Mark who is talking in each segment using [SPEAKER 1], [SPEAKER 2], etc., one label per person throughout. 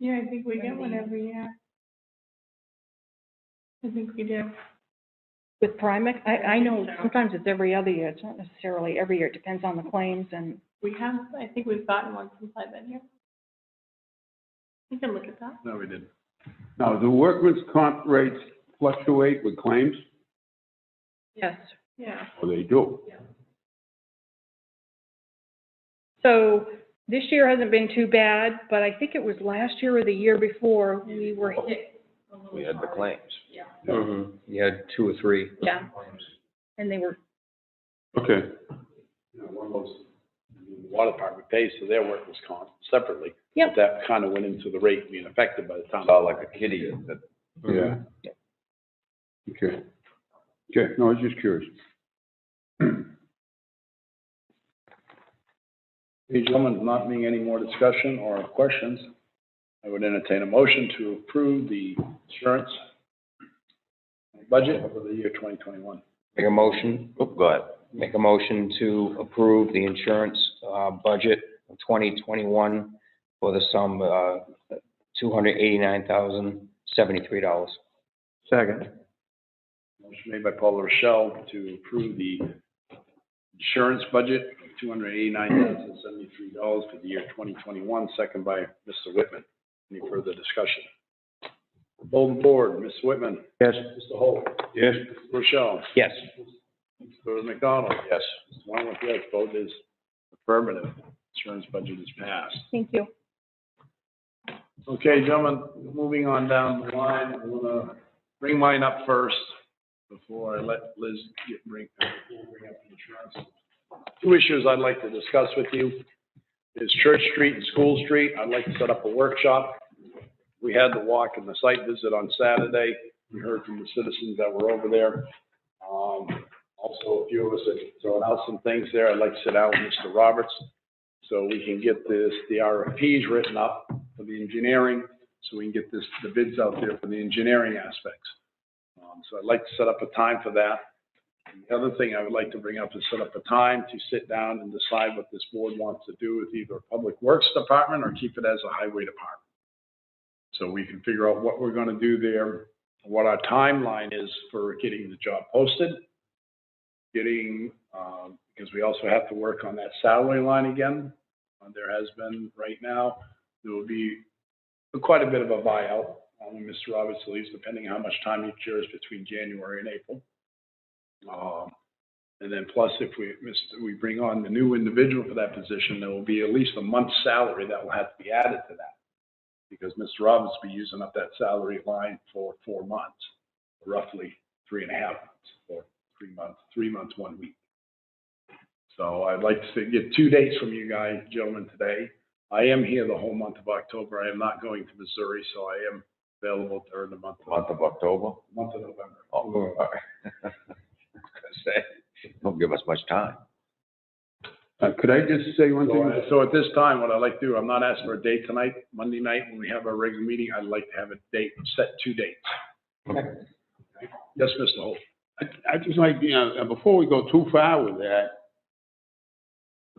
[SPEAKER 1] Yeah, I think we get
[SPEAKER 2] From
[SPEAKER 1] one
[SPEAKER 2] the-
[SPEAKER 1] every year. I think we do.
[SPEAKER 3] With Primex, I, I know
[SPEAKER 1] So-
[SPEAKER 3] sometimes it's every other year, it's not necessarily every year, it depends on the claims and,
[SPEAKER 1] We have, I think we've gotten one from Five Ed here. We can look at that.
[SPEAKER 4] No, we didn't. No, the workman's comp rates fluctuate with claims,
[SPEAKER 3] yes.
[SPEAKER 1] Yeah.
[SPEAKER 4] or they do.
[SPEAKER 3] So this year hasn't been too bad, but I think it was last year or the year before, we were hit,
[SPEAKER 5] We had the claims.
[SPEAKER 4] Yeah.
[SPEAKER 5] Mhm. You had two or three.
[SPEAKER 3] yeah. And they were,
[SPEAKER 4] Okay.
[SPEAKER 6] you know, one of those, the water department pays for their workers' comp separately.
[SPEAKER 3] Yep.
[SPEAKER 6] That kind of went into the rate being affected by the town.
[SPEAKER 5] Saw like a kitty that
[SPEAKER 4] Yeah. Okay. Okay, no, I was just curious.
[SPEAKER 6] Ladies and gentlemen, not being any more discussion or questions, I would entertain a motion to approve the insurance budget for the year twenty twenty-one.
[SPEAKER 5] Make a motion, oh, go ahead. Make a motion to approve the insurance, uh, budget of twenty twenty-one for the sum, uh, two hundred eighty-nine thousand, seventy-three dollars.
[SPEAKER 4] Second.
[SPEAKER 6] Motion made by Paul Rochelle to approve the insurance budget of two hundred eighty-nine thousand seventy-three dollars for the year twenty twenty-one, second by Mr. Whitman. Any further discussion? Golden board, Ms. Whitman,
[SPEAKER 4] Yes.
[SPEAKER 6] Mr. Holt,
[SPEAKER 4] Yes.
[SPEAKER 6] Rochelle,
[SPEAKER 5] Yes.
[SPEAKER 6] Mr. McDonald, yes. Mr. Weinrich, yes, vote is affirmative. Insurance budget is passed.
[SPEAKER 3] thank you.
[SPEAKER 6] Okay, gentlemen, moving on down the line, I'm gonna bring mine up first before I let Liz get, bring, uh, bring up the insurance. Two issues I'd like to discuss with you is Church Street and School Street. I'd like to set up a workshop. We had the walk and the site visit on Saturday. We heard from the citizens that were over there. Um, also, a few of us have thrown out some things there. I'd like to sit down with Mr. Roberts so we can get this, the RFPs written up for the engineering, so we can get this, the bids out there for the engineering aspects. Um, So I'd like to set up a time for that. And The other thing I would like to bring up is set up a time to sit down and decide what this board wants to do with either Public Works Department or keep it as a Highway Department. So we can figure out what we're gonna do there, what our timeline is for getting the job posted, getting, um, because we also have to work on that salary line again. Uh, There has been, right now, there will be quite a bit of a buyout uh, when Mr. Roberts leaves, depending how much time he cures between January and April. Um, And then plus, if we, Mr. we bring on the new individual for that position, there will be at least a month's salary that will have to be added to that. Because Mr. Roberts will be using up that salary line for four months, roughly three and a half months, or three months, three months, one week. So I'd like to say- get two dates from you guys, gentlemen, today. I am here the whole month of October. I am not going to Missouri, so I am available during the month,
[SPEAKER 5] Month of October?
[SPEAKER 6] month of November.
[SPEAKER 5] Oh, all right. I was gonna say, Don't give us much time.
[SPEAKER 4] Uh, could I just say one
[SPEAKER 6] So,
[SPEAKER 4] thing?
[SPEAKER 6] I- so at this time, what I'd like to do, I'm not asking for a date tonight, Monday night, when we have our regular meeting, I'd like to have a date, set two dates. Yes, Mr. Holt.
[SPEAKER 4] I, I just like, you know, uh, before we go too far with that,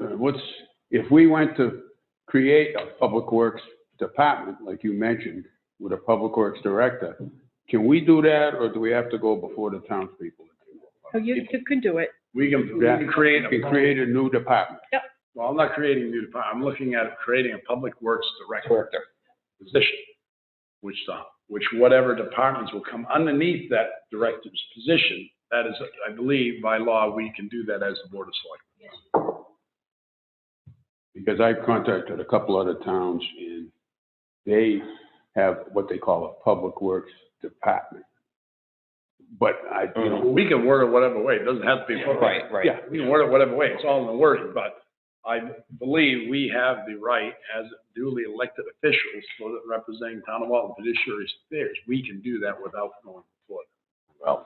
[SPEAKER 4] uh, what's, if we went to create a public works department, like you mentioned, with a public works director, can we do that, or do we have to go before the townspeople?
[SPEAKER 3] So Oh, you, you could do it.
[SPEAKER 6] We can, we can create,
[SPEAKER 4] We
[SPEAKER 6] a-
[SPEAKER 4] can create a new department.
[SPEAKER 6] well, I'm not creating a new department, I'm looking at creating a public works director
[SPEAKER 5] Director.
[SPEAKER 6] position, which, the- which whatever departments will come underneath that director's position, that is, I believe, by law, we can do that as the Board of Selectmen.
[SPEAKER 4] Because I've contacted a couple other towns, and they have what they call a public works department. But I, you know,
[SPEAKER 6] We can word it whatever way, it doesn't have to be.
[SPEAKER 5] Right, right.
[SPEAKER 4] yeah,
[SPEAKER 6] We can word it whatever way, it's all in the wording, but I believe we have the right as duly elected officials for representing town of Walton fiduciary affairs, we can do that without going before.
[SPEAKER 7] Well,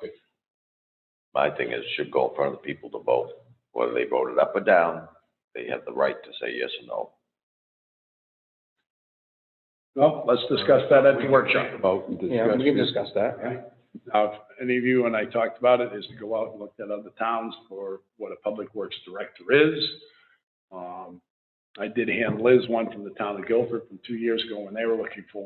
[SPEAKER 7] my thing is, it should go in front of the people to vote, whether they voted up or down, they have the right to say yes or no.
[SPEAKER 6] Well, let's discuss that at the workshop.
[SPEAKER 4] about and
[SPEAKER 5] Yeah, we can
[SPEAKER 4] discuss.
[SPEAKER 5] discuss that, yeah.
[SPEAKER 6] Now, if any of you and I talked about it, is to go out and look at other towns for what a public works director is. Um, I did hand Liz one from the town of Guilford from two years ago when they were looking for